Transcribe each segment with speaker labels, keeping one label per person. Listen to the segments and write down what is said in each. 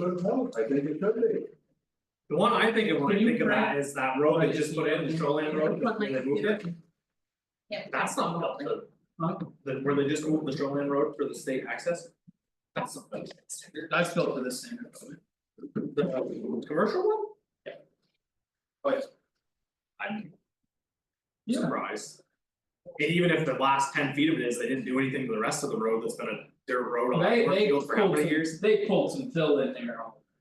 Speaker 1: But no, I think it could be.
Speaker 2: The one I think of when I
Speaker 3: Can you
Speaker 2: think of that is that road they just put in, the shoreline
Speaker 3: Put
Speaker 2: road,
Speaker 3: my
Speaker 2: where they moved
Speaker 3: computer.
Speaker 2: it, that's not built, the. the- where they just moved the shoreline road for the state access. That's something,
Speaker 4: That's built to the standard.
Speaker 2: the commercial one? Yeah. But. I'm. Surprised. And even if the last ten feet of it is, they didn't do anything to the rest of the road that's been a dirt road on
Speaker 4: They they
Speaker 2: Brookfield
Speaker 4: pulled
Speaker 2: for how many years?
Speaker 4: some, they pulled some fill in there,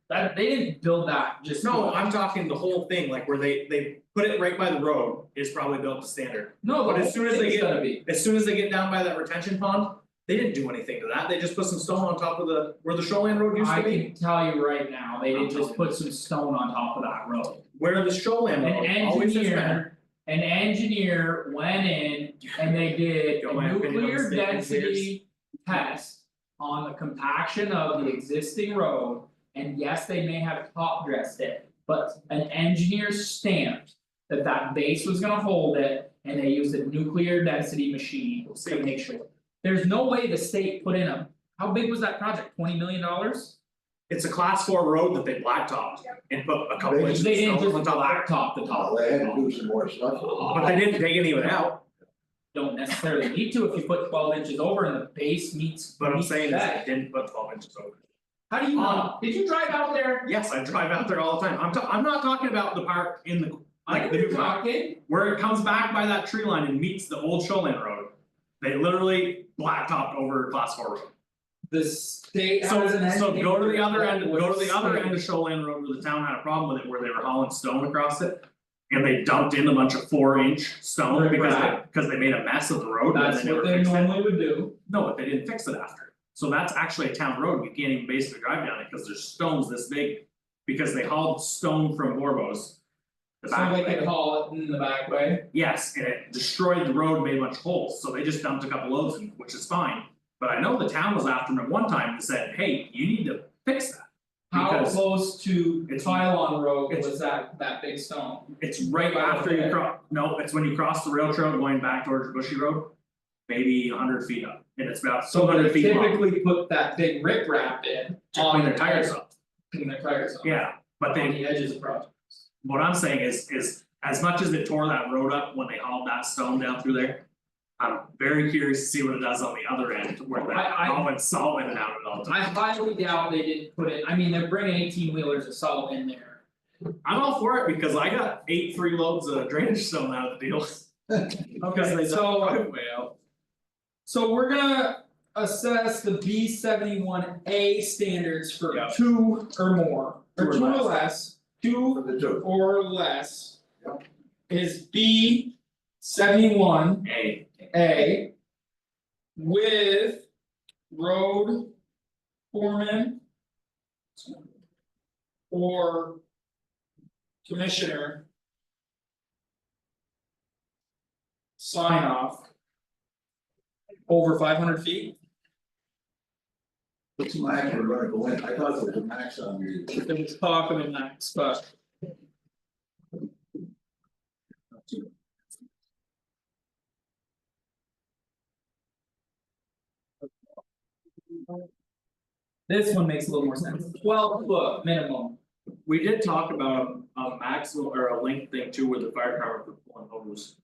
Speaker 4: that they didn't build that just.
Speaker 2: No, I'm talking the whole thing, like where they they put it right by the road is probably built to standard.
Speaker 4: No,
Speaker 2: but
Speaker 4: but
Speaker 2: as soon as they get-
Speaker 4: gonna be,
Speaker 2: As soon as they get down by that retention pond, they didn't do anything to that, they just put some stone on top of the, where the shoreline road used
Speaker 4: I
Speaker 2: to be.
Speaker 4: can tell you right now, they
Speaker 2: I'm
Speaker 4: did
Speaker 2: telling
Speaker 4: just put some stone on top of that road.
Speaker 2: Where the shoreline
Speaker 4: An
Speaker 2: road always has been.
Speaker 4: engineer, an engineer went in and they did
Speaker 2: Go
Speaker 4: a
Speaker 2: back and do
Speaker 4: nuclear
Speaker 2: the statement
Speaker 4: density test. On the compaction of the existing road, and yes, they may have top dressed it, but an engineer stamped. That that base was gonna hold it, and they used a nuclear density machine to make sure. There's no way the state put in a, how big was that project, twenty million dollars?
Speaker 2: It's a class four road that they blacktopped and put a couple
Speaker 1: They-
Speaker 2: inches
Speaker 4: They
Speaker 2: of
Speaker 4: didn't
Speaker 2: stone
Speaker 4: just
Speaker 2: on top of it.
Speaker 4: blacktop the top.
Speaker 1: Oh, they had to do some more stuff.
Speaker 2: But they didn't take any of it out,
Speaker 4: don't necessarily need to if you put twelve inches over and the base meets
Speaker 2: but I'm
Speaker 4: meets
Speaker 2: saying is they
Speaker 4: that.
Speaker 2: didn't put twelve inches over.
Speaker 4: How do you know, Uh, did you drive out there?
Speaker 2: Yes, I drive out there all the time, I'm ta- I'm not talking about the park in the,
Speaker 4: I
Speaker 2: like the
Speaker 4: know you're
Speaker 2: new park,
Speaker 4: talking,
Speaker 2: where it comes back by that tree line and meets the old shoreline road. They literally blacktopped over class four road.
Speaker 3: The state
Speaker 2: So so go to the other end, go to the other end of Shoreland Road where the town had a problem with it, where they were hauling stone across it. And they dumped in a bunch of four inch stone because they,
Speaker 4: Riprap.
Speaker 2: because they made a mess of the road and
Speaker 4: that's
Speaker 2: then they
Speaker 4: what
Speaker 2: never
Speaker 4: they
Speaker 2: fixed it.
Speaker 4: normally would do,
Speaker 2: No, but they didn't fix it after. So that's actually a town road, you can't even basically drive down it because there's stones this big. Because they hauled stone from Warbo's. The
Speaker 4: so
Speaker 2: back
Speaker 4: they
Speaker 2: way.
Speaker 4: could haul it in the back way.
Speaker 2: Yes, and it destroyed the road, made a bunch of holes, so they just dumped a couple loads, in, which is fine. But I know the town was after them at one time and said, hey, you need to fix that.
Speaker 4: How
Speaker 2: Because
Speaker 4: close to
Speaker 2: it's-
Speaker 4: Tylon Road
Speaker 2: it's-
Speaker 4: was that that big stone?
Speaker 2: it's right
Speaker 4: Right
Speaker 2: after you
Speaker 4: there.
Speaker 2: cross, no, it's when you cross the rail trail going back towards Bushy Road. Maybe hundred feet up, and it's about two hundred feet
Speaker 4: So
Speaker 2: long,
Speaker 4: they typically put that big rip wrap in
Speaker 2: to
Speaker 4: on
Speaker 2: clean their tires up,
Speaker 4: in their tires on.
Speaker 2: yeah, but they
Speaker 4: On the edges of project.
Speaker 2: What I'm saying is, is as much as it tore that road up when they hauled that stone down through there. I'm very curious to see what it does on the other end where that
Speaker 4: I- I-
Speaker 2: all went solid and out of it all.
Speaker 4: I highly doubt they didn't put it, I mean, they're bringing eighteen wheelers of salt in there.
Speaker 2: I'm all for it because I got eight three loads of drainage stone out of the deal. Because they.
Speaker 4: so-
Speaker 2: Well,
Speaker 4: So we're gonna assess the B seventy one A standards for
Speaker 2: Yeah.
Speaker 4: two or more,
Speaker 2: Two
Speaker 4: or
Speaker 2: or
Speaker 4: two or
Speaker 2: less.
Speaker 4: less, two
Speaker 1: For the two.
Speaker 4: or less. Is B seventy one
Speaker 2: hey,
Speaker 4: A. With road foreman. Or. Commissioner. Sign off. Over five hundred feet,
Speaker 1: It's max, we're gonna go in, I thought it was a max on you.
Speaker 4: there was talk of a max, but this one makes a little more sense, twelve foot minimum.
Speaker 2: we did talk about a maximum or a length thing too with the fire department for pulling hose.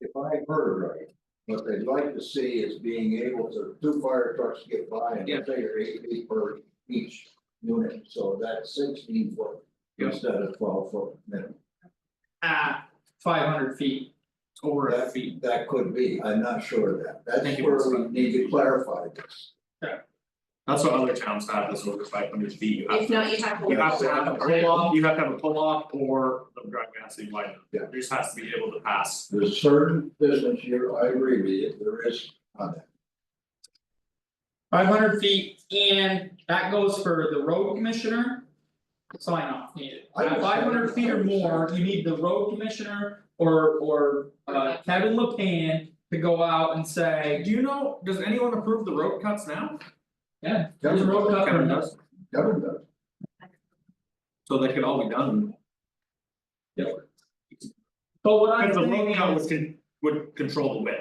Speaker 1: If I heard right, what they'd like to see is being able to, two fire trucks get by and
Speaker 2: Yeah.
Speaker 1: figure eight feet per each unit, so that's sixteen foot.
Speaker 2: Yeah.
Speaker 1: Instead of twelve foot minimum.
Speaker 4: at five hundred feet.
Speaker 2: Over a
Speaker 1: That
Speaker 2: feet.
Speaker 1: that could be, I'm not sure of that,
Speaker 2: Thank
Speaker 1: that's
Speaker 2: you,
Speaker 1: where we
Speaker 2: Mr.
Speaker 1: need to clarify this.
Speaker 2: That's what other towns have, that's over five hundred feet, you have
Speaker 3: If
Speaker 2: to-
Speaker 3: not, you have
Speaker 2: You have
Speaker 3: holes.
Speaker 2: to have a pull off, you have to have a pull off or the driving has to be wide enough, there just has to be able to pass.
Speaker 1: There's certain business here, I agree with you, there is uh, on that.
Speaker 4: Five hundred feet and that goes for the road commissioner. Sign off needed,
Speaker 1: I
Speaker 4: at
Speaker 1: understand.
Speaker 4: Uh, five hundred feet or more, you need the road commissioner or or uh Kevin LePan. To go out and say,
Speaker 2: Do you know, does anyone approve the road cuts now?
Speaker 4: yeah, there's a road cut
Speaker 2: Kevin
Speaker 4: and
Speaker 2: does,
Speaker 1: Government does.
Speaker 2: so they could all be done.
Speaker 4: But what I'm
Speaker 2: Because the
Speaker 4: saying
Speaker 2: road cut
Speaker 4: is-
Speaker 2: was con- would control the width.